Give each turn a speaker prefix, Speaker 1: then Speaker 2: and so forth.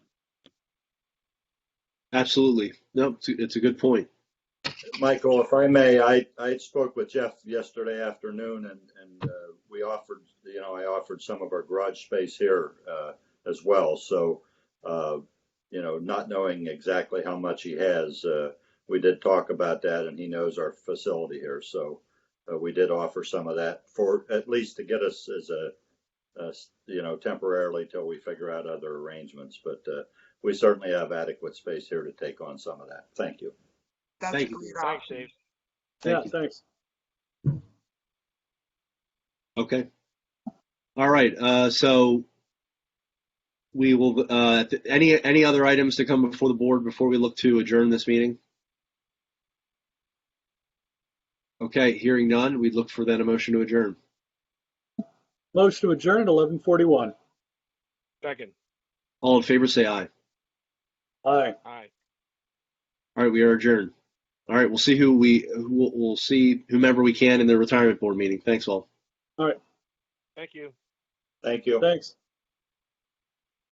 Speaker 1: Absolutely. No, it's a, it's a good point.
Speaker 2: Michael, if I may, I, I spoke with Jeff yesterday afternoon and, and uh, we offered, you know, I offered some of our garage space here uh, as well. So, uh, you know, not knowing exactly how much he has, uh, we did talk about that and he knows our facility here. So uh, we did offer some of that for, at least to get us as a, as, you know, temporarily till we figure out other arrangements. But uh, we certainly have adequate space here to take on some of that. Thank you.
Speaker 3: That's a
Speaker 1: Thank you.
Speaker 3: great
Speaker 4: Thanks,
Speaker 3: option.
Speaker 4: Dave.
Speaker 5: Yeah,
Speaker 1: Thank you.
Speaker 5: thanks.
Speaker 1: Okay. All right. Uh, so we will, uh, th- any, any other items to come before the board before we look to adjourn this meeting? Okay, hearing none, we look for then a motion to adjourn.
Speaker 5: Motion to adjourn at 11:41.
Speaker 4: Second.
Speaker 1: All in favor, say aye.
Speaker 5: Aye.
Speaker 4: Aye.
Speaker 1: All right, we are adjourned. All right, we'll see who we, who we'll, we'll see whomever we can in the retirement board meeting. Thanks all.
Speaker 4: Thank you.
Speaker 2: Thank you.
Speaker 5: Thanks.